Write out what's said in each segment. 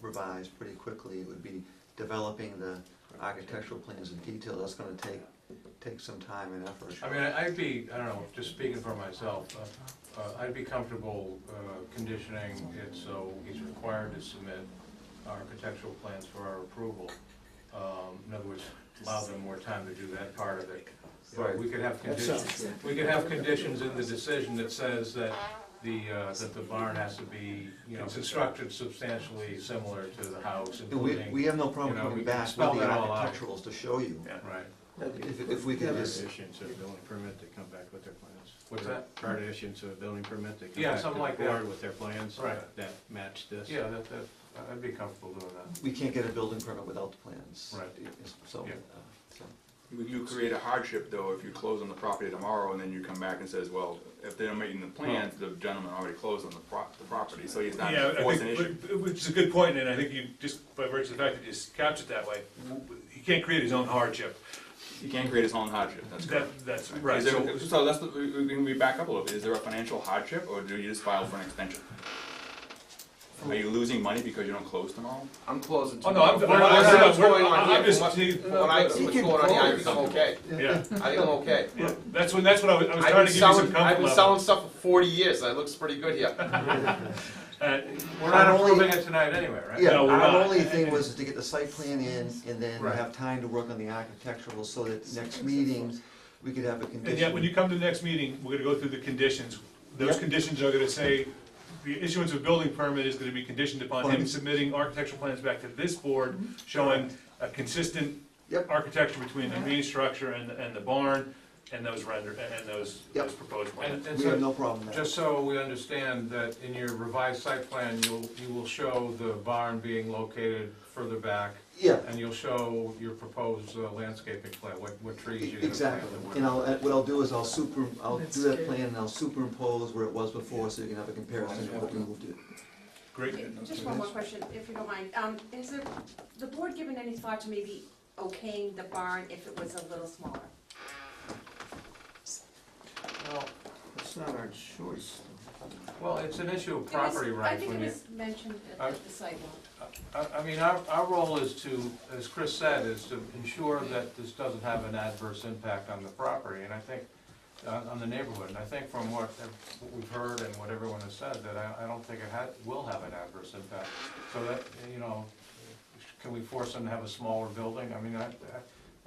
revised pretty quickly. It would be developing the architectural plans in detail. That's gonna take, take some time and effort. I mean, I'd be, I don't know, just speaking for myself, uh, uh, I'd be comfortable uh, conditioning it so he's required to submit architectural plans for our approval. Um, In other words, allow them more time to do that part of it. But we could have conditions, we could have conditions in the decision that says that the, uh, that the barn has to be, you know, constructed substantially similar to the house, And we, including, we have no problem You know, we coming can back with the spell that all out. architecturals to show you. right, If, if we Prior can to just, issuance of a building permit, they come back with their plans. What's that? Prior to issuance of a building permit, they come Yeah, back to the something like that. board with their plans Right. that match this. yeah, that, that, I'd be comfortable doing that. we can't get a building permit without the plans. Right. It's- So, Yeah. uh, so. You create a hardship though if you close on the property tomorrow and then you come back and says, well, if they're meeting the plans, the gentleman already closed on the pro- the property, so he's not Yeah, I forcing an issue. think, but- which is a good point, and I think you, just by virtue of the fact that you just couch it that way, he can't create his own hardship. He can create his own hardship, that's That, correct. that's right. Is So there, so that's, the- we, we can be back up a little bit, is there a financial hardship or do you just file for an extension? Are you losing money because you don't close tomorrow? I'm closing. Oh, no, I'm- tomorrow. I'm- From I'm- what's going on I'm here, just- from what- he- from what I see what's He can going on here, I close. think I'm okay. Yeah, I think I'm okay. yeah, that's when, that's what I was, I was I've trying been to give you some selling- I've comfort been level. selling stuff for forty years, that looks pretty good here. Uh, We're not Not only- approving it tonight anyway, right? Yeah, No, we're our not. only thing was to get the site plan in and then Right. have time to work on the architectural so that next meeting, we could have a condition. And yet, when you come to the next meeting, we're gonna go through the conditions. Those Yep. conditions are gonna say, the issuance of building permit is gonna be conditioned upon him Fine. submitting architectural plans back to this board showing a consistent Yep. architecture between the main structure and, and the barn, and those render, and those, Yep. those proposed And, plans. and We have so, no problem with that. just so we understand that in your revised site plan, you'll, you will show the barn being located further back, Yeah, and you'll show your proposed uh, landscaping plan, what, what trees you're gonna plant. exactly. and what- And I'll, uh, what I'll do is I'll super, I'll That's do that good. plan and I'll superimpose where it was before so you can have a comparison of what we moved it. Great. Just one more question, if you don't mind. Um, Has the, the board given any thought to maybe okaying the barn if it was a little smaller? Well, it's not our choice. Well, it's an issue of It was- property I rights think it when you, was mentioned Uh, at the sidewalk. I, I mean, our, our role is to, as Chris said, is to ensure that this doesn't have an adverse impact on the property, and I think, on, on the neighborhood, and I think from what, ev- what we've heard and what everyone has said, that I, I don't think it had, will have an adverse impact. So that, you know, can we force them to have a smaller building? I mean, I, I-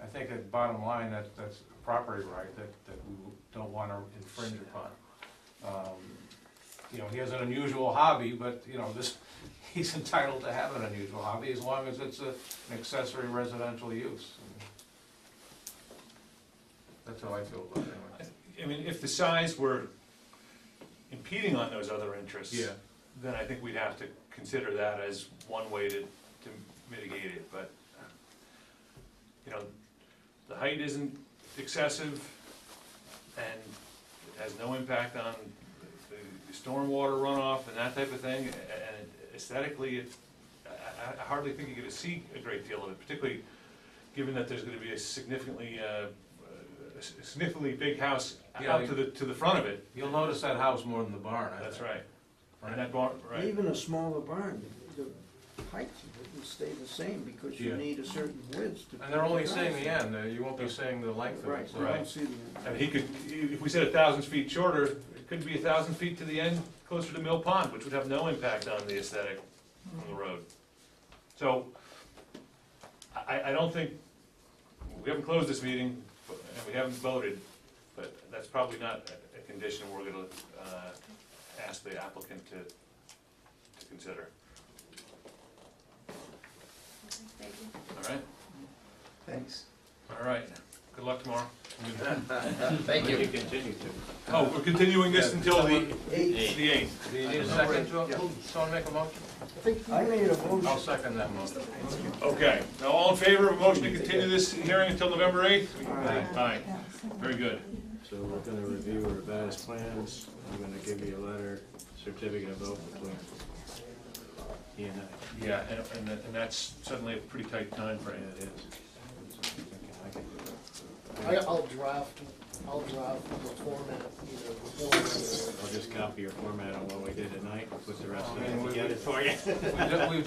I think at bottom line, that, that's a property right that, that we don't wanna infringe upon. Um, You know, he has an unusual hobby, but, you know, this, he's entitled to have an unusual hobby as long as it's a- an accessory residential use. That's how I feel about it anyway. I mean, if the size were impeding on those other interests, Yeah. then I think we'd have to consider that as one way to, to mitigate it, but, you know, the height isn't excessive, and it has no impact on the stormwater runoff and that type of thing, and aesthetically, it, I, I- I hardly think you're gonna see a great deal of it, particularly given that there's gonna be a significantly, uh, a significantly big house Yeah, out to the, to the front of it, You'll notice that house more than the barn, I think. that's right. And that barn, right, Even a smaller barn, the the height would stay the same because you Yeah. need a certain width to. And they're only put the seeing house the end, uh, you won't be seeing the in. length of Right, it. you so- Right. don't see the I mean, he could, if we said a thousand feet shorter, it could be a thousand feet to the end, closer to Mill Pond, which would have no impact on the aesthetic on the road. So, I, I- I don't think, we haven't closed this meeting, but- and we haven't voted, but that's probably not a- a condition we're gonna, uh, ask the applicant to, to consider, Thank you. all right? Thanks. All right, good luck tomorrow. Thank you. Continue to. Oh, we're continuing this until the, Eight, the eighth. Do you need a second to, someone make a motion? I made a I'll motion, second that motion. Okay, now all in favor of a motion to continue this hearing until November eighth? Aye. Aye, very good. So we're gonna review our revised plans, I'm gonna give you a letter, certificate of vote between he and I. Yeah, and, and that- and that's suddenly a pretty tight time Yeah, frame. it is. I can do it. I, I'll draft, I'll draft the format either before or I'll just copy your format on what we did tonight, and put the rest of I mean, it we- together for you. We've done- we've